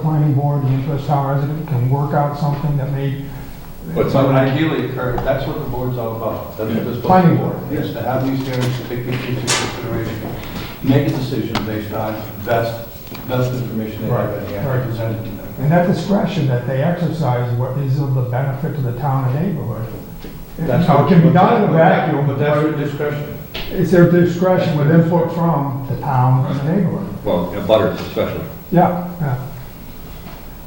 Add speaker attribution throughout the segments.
Speaker 1: planning board, the Interest Town resident can work out something that may.
Speaker 2: But so ideally, Kurt, that's what the board's all about. That's what this planning board is, to have these hearings, to take these into consideration, make a decision based on best, best information they have at hand presented to them.
Speaker 1: And that discretion that they exercise what is of the benefit to the town and neighborhood.
Speaker 2: That's
Speaker 1: Now, it can be done in a vacuum,
Speaker 2: But that's your discretion.
Speaker 1: It's their discretion with input from the town and the neighborhood.
Speaker 3: Well, and butters especially.
Speaker 1: Yeah, yeah.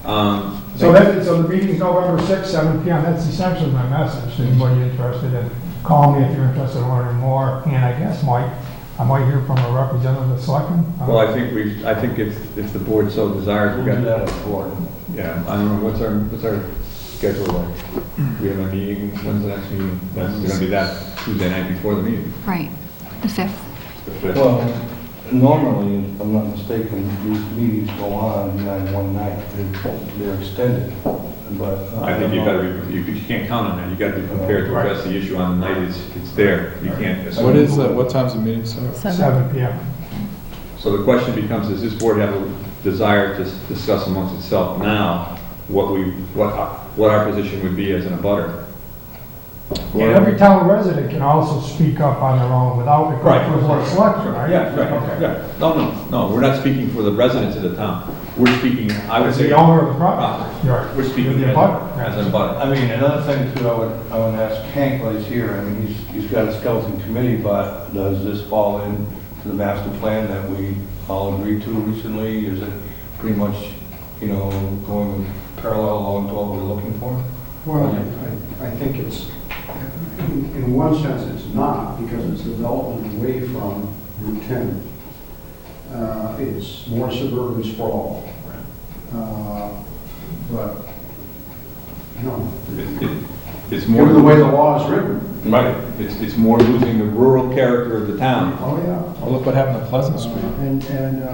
Speaker 3: Um,
Speaker 1: So that, so the meeting's November 6th, 7 PM, that's essentially my message, to anybody interested in, call me if you're interested in learning more, and I guess, Mike, I might hear from a representative of the selectmen. uh,
Speaker 3: Well, I think we, I think if, if the board so desires,
Speaker 2: We'll
Speaker 3: we
Speaker 2: do
Speaker 3: got,
Speaker 2: that at the board.
Speaker 3: yeah, I don't know, what's our, what's our schedule like? We have a meeting, when's the next meeting? That's gonna be that Tuesday night before the meeting.
Speaker 4: Right, the 5th.
Speaker 3: the fifth.
Speaker 2: Well, normally, if I'm not mistaken, these meetings go on nine one night. They're- They're extended, but. uh,
Speaker 3: I think you
Speaker 2: don't know.
Speaker 3: gotta, be- you you can't count on that, you gotta be prepared to address the issue on the night it's, it's there, you can't. assume.
Speaker 5: What is, the- what time's the meeting start?
Speaker 1: 7 PM.
Speaker 3: So the question becomes, does this board have a desire to s- discuss amongst itself now what we, what, our- what our position would be as an abutter?
Speaker 1: And every town resident can also speak up on their own without, it
Speaker 3: Right.
Speaker 1: going to the selectmen, right?
Speaker 3: Yeah, right, yeah. No, no, no, we're not speaking for the residents of the town. We're speaking, I would
Speaker 1: As
Speaker 3: say,
Speaker 1: the
Speaker 3: we're
Speaker 1: owner of the property. Right.
Speaker 3: Ah, speaking
Speaker 1: You're
Speaker 3: as
Speaker 1: the abutter.
Speaker 3: a- as an abutter.
Speaker 2: I mean, another thing too, I would, I would ask Hank while he's here, I mean, he's, he's got a skeleton committee, but does this fall in to the master plan that we all agreed to recently? Is it pretty much, you know, going parallel along to what we're looking for?
Speaker 6: Well, I- I, I think it's, in in one sense, it's not, because it's development away from Route 10. Uh, It's more suburban sprawl. Uh, But, you know,
Speaker 3: It- it- It's more,
Speaker 6: given the way the law is written,
Speaker 3: right, it's, it's more losing the rural character of the town.
Speaker 6: oh, yeah.
Speaker 5: Well, look what happened to Pleasant Street.
Speaker 6: Uh, And, and, uh,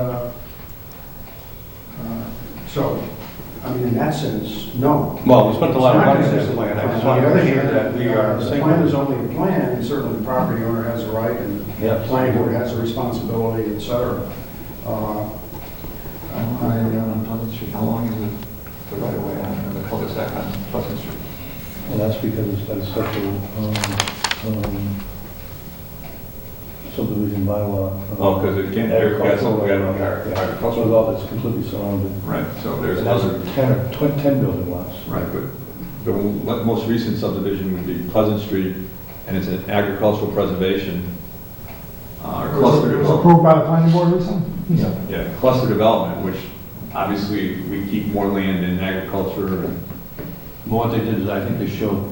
Speaker 6: uh, so, I mean, in that sense, no.
Speaker 2: Well, we spent a lot of money
Speaker 6: It's
Speaker 2: on
Speaker 6: not
Speaker 2: this
Speaker 6: consistent.
Speaker 2: plan, I just
Speaker 6: On
Speaker 2: want
Speaker 6: the
Speaker 2: to
Speaker 6: other
Speaker 2: make sure
Speaker 6: hand,
Speaker 2: that we are
Speaker 6: The plan is
Speaker 2: single.
Speaker 6: only a plan, and certainly the property owner has a right, and the
Speaker 2: Yes.
Speaker 6: planning board has a responsibility, et cetera. Uh,
Speaker 7: I don't know, I don't know, Pleasant Street, how long is it, the right of way on the cul-de-sac on Pleasant Street?
Speaker 2: Well, that's because it's got a special, um, um, subdivision bylaw.
Speaker 3: Oh, 'cause it can't- there- that's what we had on our-
Speaker 2: Yeah,
Speaker 3: our-
Speaker 2: that's what all that's completely surrounded.
Speaker 3: Right, so there's
Speaker 2: And that's
Speaker 3: another,
Speaker 2: 10 or tw- 10 building lots.
Speaker 3: right, but the le- most recent subdivision would be Pleasant Street, and it's an agricultural preservation, uh, or
Speaker 1: It was
Speaker 3: cluster
Speaker 1: it was
Speaker 3: development.
Speaker 1: approved by the planning board recently? Yeah.
Speaker 3: Yeah, cluster development, which obviously we keep more land in agriculture and
Speaker 2: But What they did is, I think they showed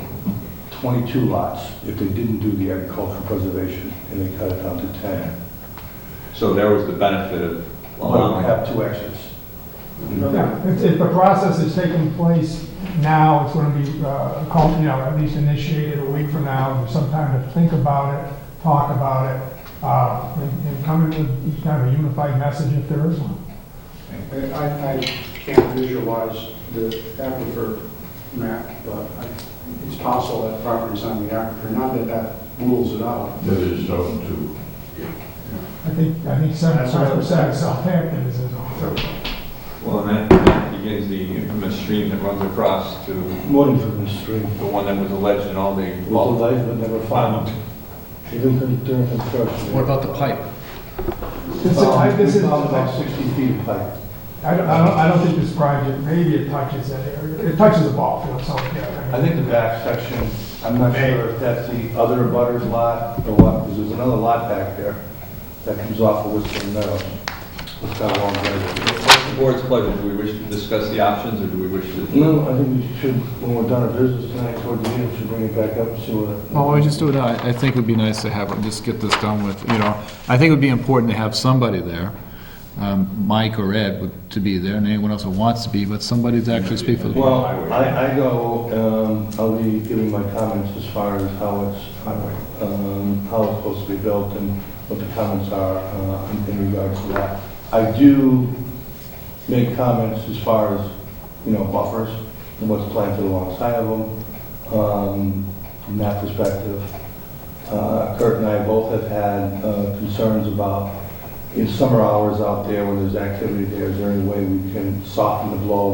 Speaker 2: 22 lots if they didn't do the agricultural preservation, and they cut it down to 10.
Speaker 3: So there was the benefit of
Speaker 2: But we
Speaker 3: allowing.
Speaker 2: have two exits.
Speaker 1: Yeah, If, if the process is taking place now, it's gonna be, uh, called, you know, at least initiated a week from now, with some time to think about it, talk about it, uh, and, and come up with kind of a unified message if there is one.
Speaker 6: I, I I can't visualize the aquifer map, but I- it's possible that property's on the aquifer, not that that rules it out.
Speaker 8: That is zone two.
Speaker 1: I think, I think seven,
Speaker 6: That's what I'm
Speaker 1: percent
Speaker 6: saying.
Speaker 1: of Southampton is in on.
Speaker 3: Well, and that- that begins the infamous stream that runs across to the
Speaker 2: Voting for this stream.
Speaker 3: one that was alleged in all the.
Speaker 2: Well, they never found, even during construction.
Speaker 9: What about the pipe?
Speaker 1: It's, I,
Speaker 2: We
Speaker 1: this is,
Speaker 2: found
Speaker 1: I
Speaker 2: about 60 feet of pipe.
Speaker 1: don't, I don't, I don't think this project, maybe it touches that area, it touches the ball field, so, yeah.
Speaker 2: I think the back section, I'm not sure if that's the other butters lot or what, because there's another lot back there that comes off of Whistling Meadows. It's got a long driveway.
Speaker 3: What's the board's pleasure? Do we wish to discuss the options or do we wish to?
Speaker 2: No, I think we should, when we're done our business tonight, toward the end, we should bring it back up and see what.
Speaker 5: Well, why don't we just do it now? I I think it'd be nice to have, it- just get this done with, you know, I think it would be important to have somebody there, um, Mike or Ed would- to be there, and anyone else who wants to be, but somebody to actually speak for the board.
Speaker 2: Well, I, I go, um, I'll be giving my comments as far as how it's, um, how it's supposed to be built and what the comments are, uh, in- in regards to that. I do make comments as far as, you know, buffers and what's planted alongside of them, um, from that perspective. Uh, Kurt and I both have had, uh, concerns about in summer hours out there when there's activity there, is there any way we can soften the blow